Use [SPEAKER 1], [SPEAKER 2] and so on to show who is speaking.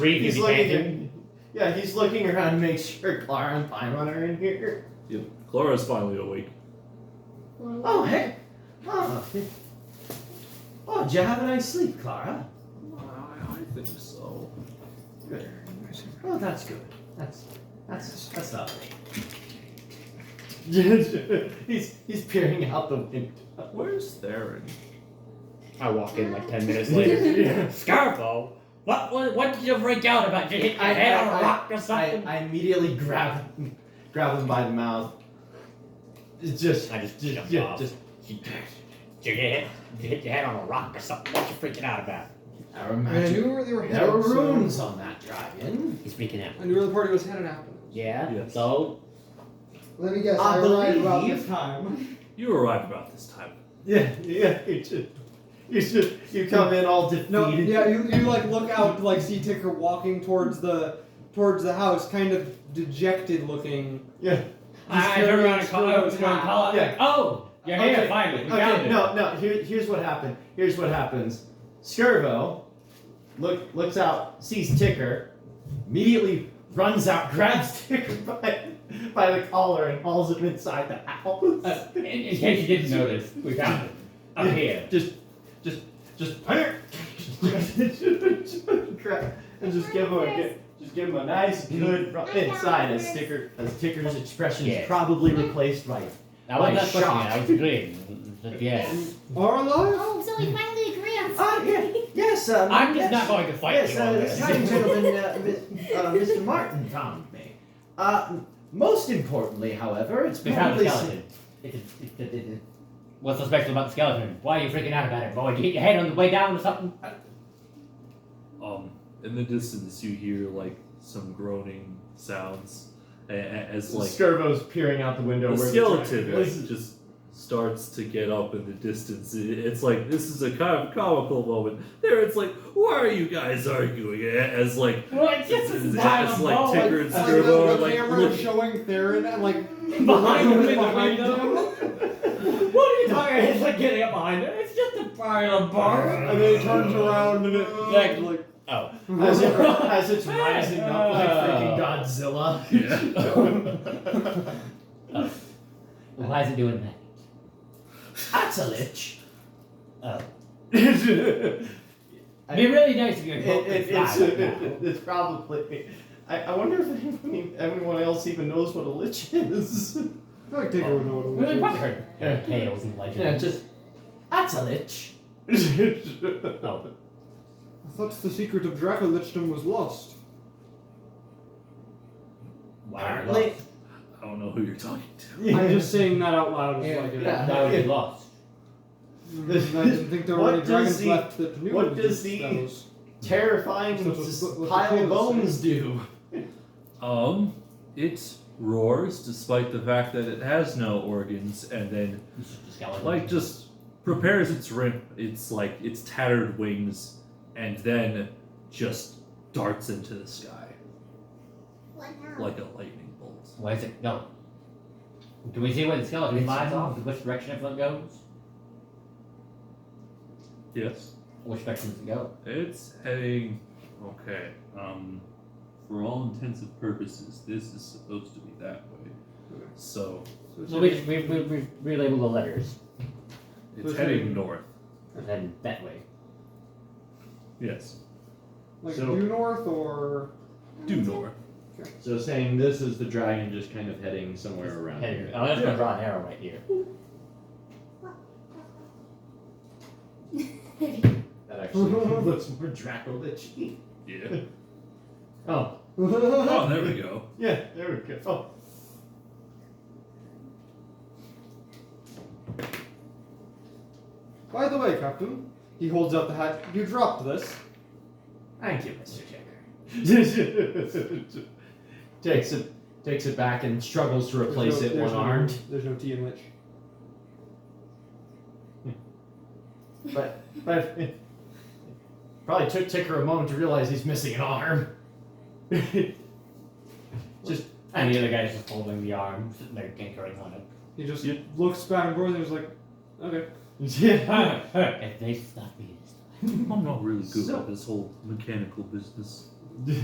[SPEAKER 1] Reed
[SPEAKER 2] He's
[SPEAKER 1] is
[SPEAKER 2] looking.
[SPEAKER 1] panting.
[SPEAKER 2] At, yeah, he's looking around to make sure Clara and Paimon are in here.
[SPEAKER 3] Yep. Clara's finally awake.
[SPEAKER 2] Oh hey, oh, oh, did you have a nice sleep, Clara?
[SPEAKER 3] I think so.
[SPEAKER 2] Good. Oh, that's good. That's that's that's lovely. he's he's peering out the window.
[SPEAKER 3] Where's Theron?
[SPEAKER 1] I walk in like ten minutes later. Scarfo, what, what what did you freak out about? Did you hit your
[SPEAKER 2] I-
[SPEAKER 1] head
[SPEAKER 2] I-
[SPEAKER 1] on a
[SPEAKER 2] I-
[SPEAKER 1] rock or
[SPEAKER 2] I,
[SPEAKER 1] something?
[SPEAKER 2] I immediately grab him, grab him by the mouth. It's just
[SPEAKER 1] I just
[SPEAKER 2] just
[SPEAKER 1] jumped
[SPEAKER 2] yeah,
[SPEAKER 1] off.
[SPEAKER 2] just
[SPEAKER 1] Did you hit did you hit your head on a rock or something? What you freaking out about?
[SPEAKER 2] I
[SPEAKER 4] I
[SPEAKER 2] imagine
[SPEAKER 4] knew where they were headed.
[SPEAKER 2] there were
[SPEAKER 4] so-
[SPEAKER 2] rooms on that drive-in.
[SPEAKER 1] He's freaking out.
[SPEAKER 4] I knew where the party was headed after.
[SPEAKER 1] Yeah.
[SPEAKER 3] Yes.
[SPEAKER 1] So
[SPEAKER 4] Let me guess.
[SPEAKER 2] I
[SPEAKER 4] I, arrived uh, about
[SPEAKER 2] believe-
[SPEAKER 4] this time.
[SPEAKER 3] You arrived about this time.
[SPEAKER 2] Yeah, yeah. You just you just you come in all defeated.
[SPEAKER 4] No, yeah, you, you like look out, like see Ticker walking towards the towards the house, kind of dejected looking.
[SPEAKER 2] yeah.
[SPEAKER 1] I, I turned around and
[SPEAKER 4] He's
[SPEAKER 1] called I was gonna call out
[SPEAKER 2] Yeah.
[SPEAKER 1] Oh, you're
[SPEAKER 2] Okay.
[SPEAKER 1] here finally. We found
[SPEAKER 2] Okay,
[SPEAKER 1] it.
[SPEAKER 2] no, no. Here, here's what happened. Here's what happens. Skirvo look looks out, sees Ticker, immediately runs out, grabs Ticker by, by the collar and hauls him inside the house.
[SPEAKER 1] Uh, in, in case you didn't notice, we found it. Up here.
[SPEAKER 2] Just, just, just panic. Crap. And just give him a gi- just give him a nice good rub inside as Ticker as Ticker's expression is
[SPEAKER 1] Yes.
[SPEAKER 2] probably replaced by
[SPEAKER 1] I wasn't
[SPEAKER 2] Like
[SPEAKER 1] pushing it,
[SPEAKER 2] shocked.
[SPEAKER 1] I was agreeing. Yeah.
[SPEAKER 4] Are alive?
[SPEAKER 5] Oh, so we finally agree on
[SPEAKER 2] Ah, yeah,
[SPEAKER 5] something.
[SPEAKER 2] yes, um,
[SPEAKER 1] I'm just
[SPEAKER 2] yes.
[SPEAKER 1] not going to fight
[SPEAKER 2] yes,
[SPEAKER 1] you
[SPEAKER 2] uh,
[SPEAKER 1] on
[SPEAKER 2] this young
[SPEAKER 1] this.
[SPEAKER 2] gentleman, uh, mi- uh, Mr. Martin, found me. Uh, most importantly, however, it's
[SPEAKER 1] We found the
[SPEAKER 2] probably
[SPEAKER 1] skeleton. It's a- it's a- it's a- What's so special about the skeleton? Why are you freaking out about it, boy? Did you hit your head on the way down or something?
[SPEAKER 3] Um, in the distance, you hear like some groaning sounds a- a- as like
[SPEAKER 2] Skirbo's peering out the window.
[SPEAKER 3] the
[SPEAKER 2] where
[SPEAKER 3] skeleton
[SPEAKER 2] the
[SPEAKER 3] like, just starts to get up in the distance. It- It's like this is a kind of comical moment. There, it's like, why are you guys arguing? A- As like,
[SPEAKER 1] Well, it's just
[SPEAKER 3] as,
[SPEAKER 1] as
[SPEAKER 3] as, like Tigger and
[SPEAKER 4] Like the,
[SPEAKER 3] Skirbo are
[SPEAKER 4] the
[SPEAKER 3] like,
[SPEAKER 4] camera
[SPEAKER 3] look,
[SPEAKER 4] showing Theron and like
[SPEAKER 1] behind him in the
[SPEAKER 4] behind
[SPEAKER 1] window.
[SPEAKER 4] him.
[SPEAKER 1] What are you talking about? It's like getting up behind him. It's just a pile of bar.
[SPEAKER 4] And then he turns around and it
[SPEAKER 1] Like-
[SPEAKER 4] like
[SPEAKER 1] Oh.
[SPEAKER 2] as, it, as it's rising up like freaking
[SPEAKER 1] Oh.
[SPEAKER 2] Godzilla.
[SPEAKER 3] Yeah.
[SPEAKER 1] Why is it doing that?
[SPEAKER 2] That's a lich.
[SPEAKER 1] Oh.
[SPEAKER 2] it,
[SPEAKER 1] It'd be really nice if you could go
[SPEAKER 2] it- it's, uh,
[SPEAKER 1] inside right now.
[SPEAKER 2] it's probably. I, I wonder if anyone, everyone else even knows what a lich is.
[SPEAKER 4] I feel like Tigger would know
[SPEAKER 1] We
[SPEAKER 4] what it
[SPEAKER 1] really
[SPEAKER 4] was.
[SPEAKER 1] probably heard
[SPEAKER 2] Yeah.
[SPEAKER 1] tales and legends.
[SPEAKER 2] Yeah, just that's a lich. oh.
[SPEAKER 4] I thought the secret of Dracolichtum was lost.
[SPEAKER 1] Why are we
[SPEAKER 2] Apparently,
[SPEAKER 1] lost?
[SPEAKER 3] I don't know who you're talking to.
[SPEAKER 4] I'm just saying that out loud. It's
[SPEAKER 2] Yeah,
[SPEAKER 4] like,
[SPEAKER 2] yeah.
[SPEAKER 1] Why would we lost?
[SPEAKER 4] Mm, I didn't think there were
[SPEAKER 2] What
[SPEAKER 4] any
[SPEAKER 2] does
[SPEAKER 4] dragons
[SPEAKER 2] the-
[SPEAKER 4] left that knew
[SPEAKER 2] what
[SPEAKER 4] of
[SPEAKER 2] does
[SPEAKER 4] these
[SPEAKER 2] the-
[SPEAKER 4] spells.
[SPEAKER 2] terrifying
[SPEAKER 4] So what's-
[SPEAKER 2] s-
[SPEAKER 4] what's the
[SPEAKER 2] pile of
[SPEAKER 4] tail
[SPEAKER 2] bones do.
[SPEAKER 3] Um, it roars despite the fact that it has no organs, and then
[SPEAKER 1] It's just a skeleton.
[SPEAKER 3] like just prepares its rim its like its tattered wings and then just darts into the sky
[SPEAKER 5] What now?
[SPEAKER 3] like a lightning bolt
[SPEAKER 1] Why is it? No. Do we see where the skeleton
[SPEAKER 2] It's
[SPEAKER 1] flies
[SPEAKER 2] a-
[SPEAKER 1] off? Which direction it goes?
[SPEAKER 3] yes
[SPEAKER 1] Which direction does it go?
[SPEAKER 3] it's heading okay um for all intents and purposes this is supposed to be that way so
[SPEAKER 4] So it's
[SPEAKER 1] So we, we, we, we relabel the letters
[SPEAKER 3] it's
[SPEAKER 4] it's
[SPEAKER 3] heading
[SPEAKER 4] heading-
[SPEAKER 3] north
[SPEAKER 1] and then that way.
[SPEAKER 3] yes
[SPEAKER 4] like
[SPEAKER 2] so-
[SPEAKER 4] due north or
[SPEAKER 3] due north
[SPEAKER 2] So saying this is the dragon just kind of heading Oh, somewhere around
[SPEAKER 1] Hey, I'm just gonna draw an arrow right here.
[SPEAKER 2] That actually looks more Dracolich.
[SPEAKER 3] yeah
[SPEAKER 2] Oh,
[SPEAKER 3] oh there we go
[SPEAKER 2] yeah, there we go. Oh.
[SPEAKER 4] By the way, Captain, he holds out the hat. You dropped this.
[SPEAKER 2] Thank you, Mr. Checker. takes it takes it back and struggles to
[SPEAKER 4] There's
[SPEAKER 2] replace
[SPEAKER 4] no-
[SPEAKER 2] it
[SPEAKER 4] there's
[SPEAKER 2] one
[SPEAKER 4] no-
[SPEAKER 2] armed.
[SPEAKER 4] There's no T in Lich.
[SPEAKER 2] But but it probably took Ticker a moment to realize he's missing an arm. just
[SPEAKER 1] And the other guy's just holding the arm, sitting there tinkering on it.
[SPEAKER 4] He just
[SPEAKER 3] Yeah.
[SPEAKER 4] looks back and forth and he's like, okay.
[SPEAKER 2] yeah.
[SPEAKER 1] if they stop me this time.
[SPEAKER 3] i'm not really good
[SPEAKER 2] So-
[SPEAKER 3] at this whole mechanical business